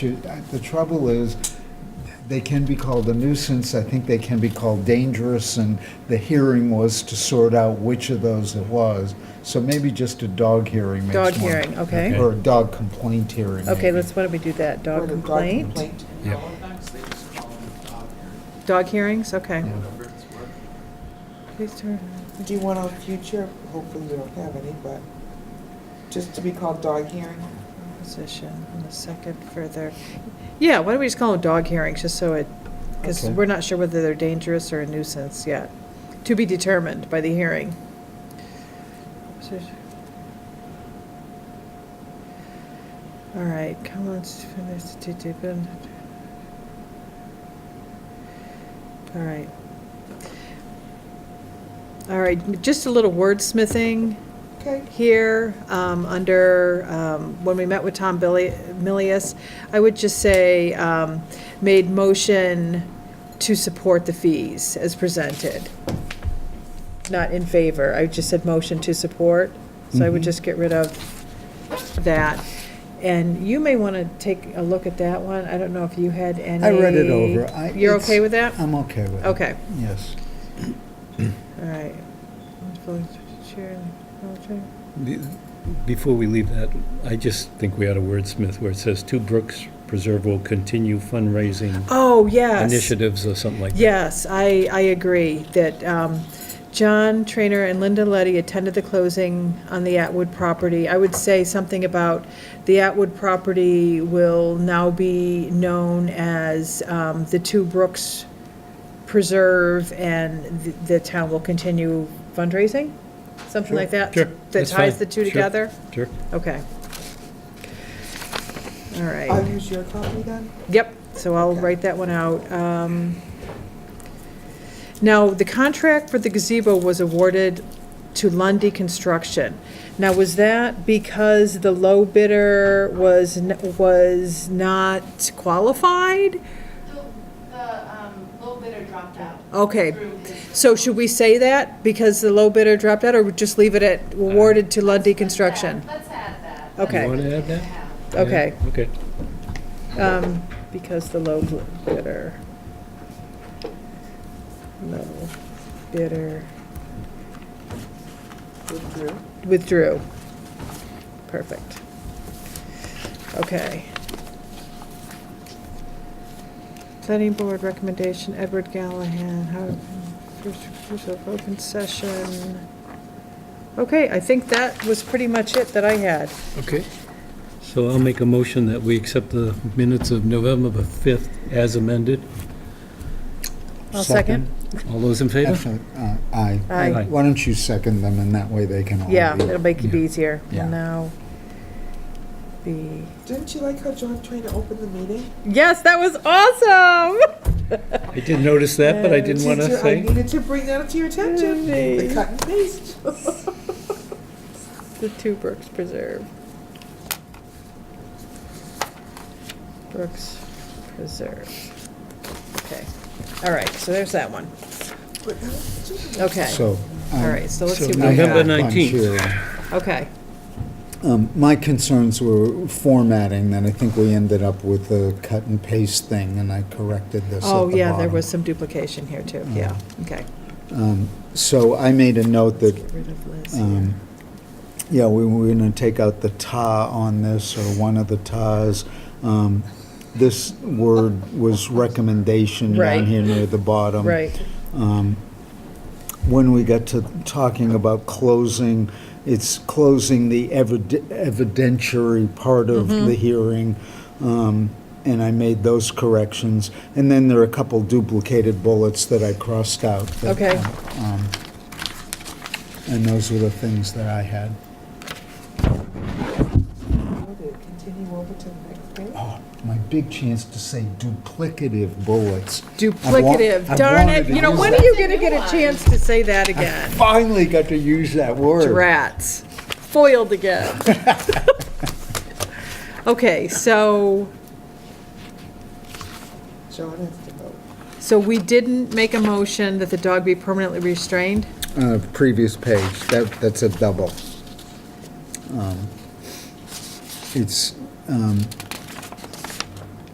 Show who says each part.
Speaker 1: The trouble is, they can be called a nuisance, I think they can be called dangerous, and the hearing was to sort out which of those it was. So maybe just a dog hearing makes
Speaker 2: Dog
Speaker 1: more-
Speaker 2: hearing, okay.
Speaker 1: Or a dog complaint hearing.
Speaker 2: Okay,
Speaker 1: maybe.
Speaker 2: let's, why don't we do that?
Speaker 3: Or
Speaker 2: Dog
Speaker 3: the
Speaker 2: complaint?
Speaker 3: Yeah.
Speaker 2: Dog hearings, okay. Please turn.
Speaker 3: Do you want a future, hopefully we don't have any, but just to be called dog hearing?
Speaker 2: Position, and a second further. Yeah, why don't we just call them dog hearings, just so it, because
Speaker 1: Okay.
Speaker 2: we're not sure whether they're dangerous or a nuisance yet. To be determined by the hearing. So- All right, comments, finish, to- to- been- all right. All right, just a little wordsmithing
Speaker 3: Okay,
Speaker 2: here, um, under, um, when we met with Tom Billy, Milius, I would just say, um, made motion to support the fees as presented. Not in favor, I just said motion to support, so I would
Speaker 1: Mhm.
Speaker 2: just get rid of that. And you may want to take a look at that one, I don't know if you had any.
Speaker 1: I read it over. I-
Speaker 2: You're
Speaker 1: it's-
Speaker 2: okay with that?
Speaker 1: I'm okay with it.
Speaker 2: Okay.
Speaker 1: Yes.
Speaker 2: All right. Chair, okay.
Speaker 4: Be- Before we leave that, I just think we ought to wordsmith where it says, "Two Brooks Preserve will continue fundraising
Speaker 2: Oh, yes.
Speaker 4: initiatives," or something like that.
Speaker 2: Yes, I, I agree that um, John Trainer and Linda Letty attended the closing on the Atwood property. I would say something about the Atwood property will now be known as um, the Two Brooks Preserve, and th- the town will continue fundraising? Something like that?
Speaker 4: Sure,
Speaker 2: That
Speaker 4: that's fine.
Speaker 2: ties the two
Speaker 4: Sure.
Speaker 2: together?
Speaker 4: Sure.
Speaker 2: Okay. All right.
Speaker 3: I'll use your copy then?
Speaker 2: Yep, so I'll
Speaker 3: Okay.
Speaker 2: write that one out. Um, Now, the contract for the gazebo was awarded to Lundy Construction. Now, was that because the low bidder was, n- was not qualified?
Speaker 5: The, the um, low bidder dropped out.
Speaker 2: Okay,
Speaker 5: Through his-
Speaker 2: so should we say that because the low bidder dropped out, or just leave it at awarded to Lundy Construction?
Speaker 5: Let's add that.
Speaker 2: Okay.
Speaker 4: You want to add that?
Speaker 5: Yeah.
Speaker 2: Okay,
Speaker 4: Yeah, Okay.
Speaker 2: um, because the low bidder. Low bidder.
Speaker 3: Withdrew.
Speaker 2: Withdrew. Perfect. Okay. Planning Board recommendation, Edward Gallahan, how, first use of open session. Okay, I think that was pretty much it that I had.
Speaker 4: Okay. So I'll make a motion that we accept the minutes of November the 5th as amended.
Speaker 2: I'll second.
Speaker 4: All those in favor?
Speaker 1: Actually, uh, Aye.
Speaker 2: Aye.
Speaker 4: Aye.
Speaker 1: Why don't you second them, and that way they can all be.
Speaker 2: Yeah, it'll make it
Speaker 4: Yeah.
Speaker 2: easier.
Speaker 1: Yeah.
Speaker 2: And now, the,
Speaker 3: Didn't you like how John Trainer opened the meeting?
Speaker 2: yes, that was awesome!
Speaker 4: I did notice that, but I didn't want to
Speaker 3: Uh, Teacher, I
Speaker 4: say.
Speaker 3: needed to bring that to your attention.
Speaker 2: Yay.
Speaker 3: The cut and paste.
Speaker 2: The two Brooks Preserve. Brooks Preserve. Okay, all right, so there's that one.
Speaker 3: But that was just-
Speaker 2: Okay,
Speaker 1: So.
Speaker 2: all right, so let's see what we
Speaker 4: November
Speaker 2: got.
Speaker 4: ninth. 19th.
Speaker 2: Okay,
Speaker 1: Um, My concerns were formatting, and I think we ended up with a cut and paste thing, and I corrected this at
Speaker 2: oh,
Speaker 1: the
Speaker 2: yeah, there
Speaker 1: bottom. Uh-huh.
Speaker 2: was some duplication here, too, yeah, okay.
Speaker 1: Um, So I made a note
Speaker 2: Let's
Speaker 1: that,
Speaker 2: get rid of Liz
Speaker 1: um,
Speaker 2: here.
Speaker 1: yeah, we were going to take out the "ta" on this, or one of the "tas." Um, This word was recommendation
Speaker 2: Right.
Speaker 1: down here near the bottom.
Speaker 2: Right,
Speaker 1: Um, When we got to talking about closing, it's closing the eviden- evidentiary part of
Speaker 2: Mm-hmm.
Speaker 1: the hearing, um, and I made those corrections. And then there are a couple duplicated bullets that I crossed out. that,
Speaker 2: Okay.
Speaker 1: um, And those were the things that I had.
Speaker 3: How did it Continue over to the next page.
Speaker 1: Oh, My big chance to say duplicative bullets.
Speaker 2: duplicative,
Speaker 1: I've
Speaker 2: darn
Speaker 1: wanted
Speaker 2: it,
Speaker 1: to
Speaker 2: you know,
Speaker 1: use
Speaker 2: when
Speaker 1: that.
Speaker 2: are you gonna get a chance to say that
Speaker 1: I
Speaker 2: again?
Speaker 1: finally got to use that word.
Speaker 2: Rats. Foiled again. Okay, so,
Speaker 3: John has to vote.
Speaker 2: so we didn't make a motion that the dog be permanently restrained?
Speaker 1: Uh, Previous page, that, that's a double. Um, It's, um,